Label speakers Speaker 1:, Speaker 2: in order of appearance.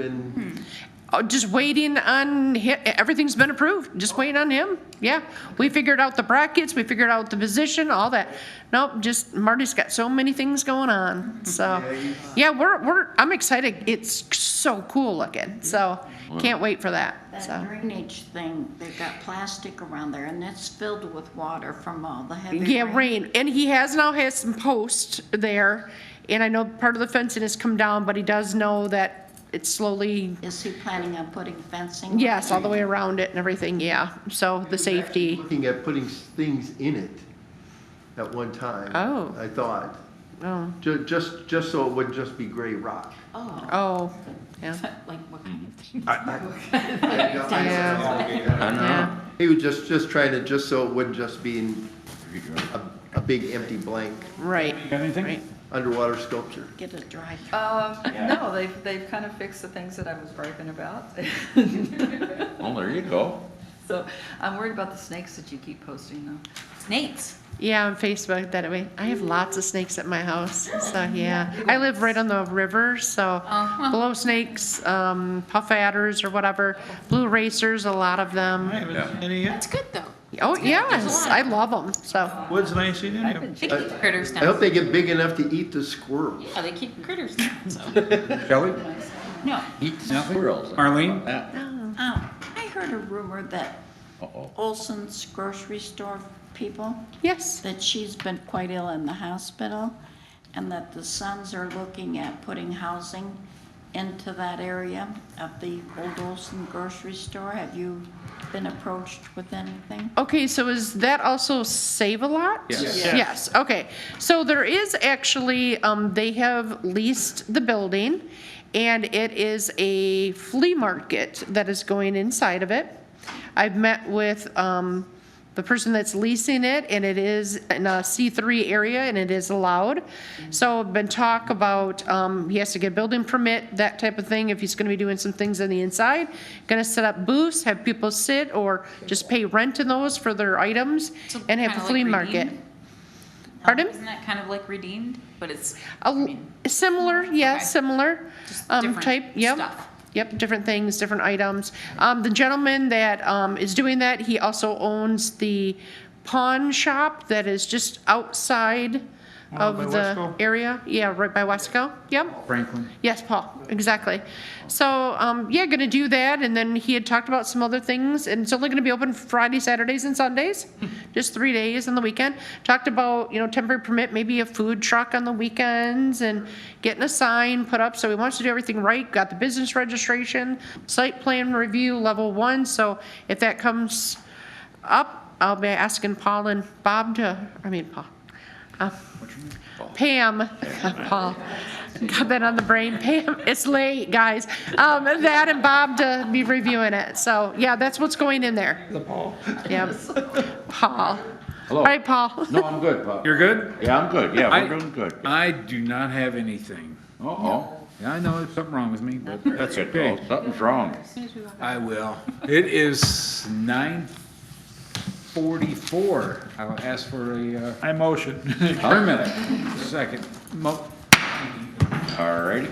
Speaker 1: been,
Speaker 2: Oh, just waiting on hi, everything's been approved, just waiting on him, yeah. We figured out the brackets, we figured out the position, all that. Nope, just Marty's got so many things going on, so, yeah, we're, we're, I'm excited, it's so cool looking, so, can't wait for that,
Speaker 3: That
Speaker 2: so.
Speaker 3: drainage thing, they've got plastic around there and it's filled with water from all the heavy rain.
Speaker 2: Yeah, rain, and he has now has some posts there, and I know part of the fencing has come down, but he does know that it's slowly
Speaker 3: Is he planning on putting fencing?
Speaker 2: Yes, all the way around it and everything, yeah. So the safety,
Speaker 1: looking at putting s- things in it at one time.
Speaker 2: Oh.
Speaker 1: I thought,
Speaker 2: oh,
Speaker 1: ju- just, just so it wouldn't just be gray rock.
Speaker 3: Oh,
Speaker 2: oh, yeah,
Speaker 3: like what kind of thing?
Speaker 1: Yeah.
Speaker 2: yeah.
Speaker 1: He was just, just trying to, just so it wouldn't just be in a, a big empty blank
Speaker 2: Right,
Speaker 4: Got anything?
Speaker 2: right.
Speaker 1: underwater sculpture.
Speaker 3: Get a dry.
Speaker 5: Um, no, they've, they've kind of fixed the things that I was griping about.
Speaker 6: Well, there you go.
Speaker 5: So I'm worried about the snakes that you keep posting though. Snakes?
Speaker 2: Yeah, on Facebook that way. I have lots of snakes at my house, so yeah. I live right on the river, so blow snakes, um, puff adders or whatever, blue racers, a lot of
Speaker 7: I
Speaker 2: them.
Speaker 7: haven't
Speaker 6: Yeah.
Speaker 7: seen any yet.
Speaker 8: That's good though.
Speaker 2: Oh, yes, I love them, so.
Speaker 7: Woods and I ain't seen any of them.
Speaker 8: They keep critters
Speaker 1: I
Speaker 8: down.
Speaker 1: hope they get big enough to eat the squirrels.
Speaker 8: Yeah, they keep critters down. So
Speaker 6: Shelley?
Speaker 3: No,
Speaker 6: Eat squirrels.
Speaker 7: Marlene?
Speaker 6: Uh-oh.
Speaker 3: um, I heard a rumor that Olson's grocery store people,
Speaker 2: Yes,
Speaker 3: that she's been quite ill in the hospital and that the sons are looking at putting housing into that area of the old Olson grocery store. Have you been approached with anything?
Speaker 2: Okay, so is that also Save a Lot?
Speaker 6: Yes.
Speaker 2: Yes, okay. So there is actually, um, they have leased the building, and it is a flea market that is going inside of it. I've met with, um, the person that's leasing it, and it is in a C3 area, and it is allowed. So been talk about, um, he has to get a building permit, that type of thing, if he's gonna be doing some things on the inside. Gonna set up booths, have people sit, or just pay rent in those for their items,
Speaker 8: So
Speaker 2: and have
Speaker 8: kinda
Speaker 2: a
Speaker 8: like
Speaker 2: flea market.
Speaker 8: Redeemed?
Speaker 2: Pardon?
Speaker 8: Isn't that kind of like redeemed? But it's
Speaker 2: A l- Oh, Similar, yeah,
Speaker 8: Okay.
Speaker 2: similar,
Speaker 8: Just
Speaker 2: um,
Speaker 8: different
Speaker 2: type, yep.
Speaker 8: stuff.
Speaker 2: Yep, different things, different items. Um, the gentleman that, um, is doing that, he also owns the pawn shop that is just outside
Speaker 7: by
Speaker 2: of the
Speaker 7: Wesco?
Speaker 2: area. Yeah, right by Wesco, yep.
Speaker 4: Franklin.
Speaker 2: Yes, Paul, exactly. So, um, yeah, gonna do that, and then he had talked about some other things, and it's only gonna be open Friday, Saturdays, and Sundays, just three days on the weekend. Talked about, you know, temporary permit, maybe a food truck on the weekends, and getting a sign put up, so he wants to do everything right, got the business registration, site plan review, level one, so if that comes up, I'll be asking Paul and Bob to, I mean, Paul, uh, Pam, Paul, got that on the brain, Pam, it's late, guys. Um, that and Bob to be reviewing it, so, yeah, that's what's going in there. The Paul. Yep, Paul.
Speaker 6: Hello.
Speaker 2: All right, Paul.
Speaker 6: No, I'm good, Bob.
Speaker 4: You're good?
Speaker 6: Yeah, I'm good. Yeah,
Speaker 4: I-
Speaker 6: we're doing good.
Speaker 4: I do not have anything.
Speaker 6: Uh-oh.
Speaker 4: Yeah, I know there's something wrong with me, but that's
Speaker 6: Good call.
Speaker 4: okay.
Speaker 6: Something's wrong.
Speaker 4: I will. It is nine forty-four. I will ask for a, uh,
Speaker 7: I motion.
Speaker 4: permit. Second. Mo-
Speaker 6: All righty.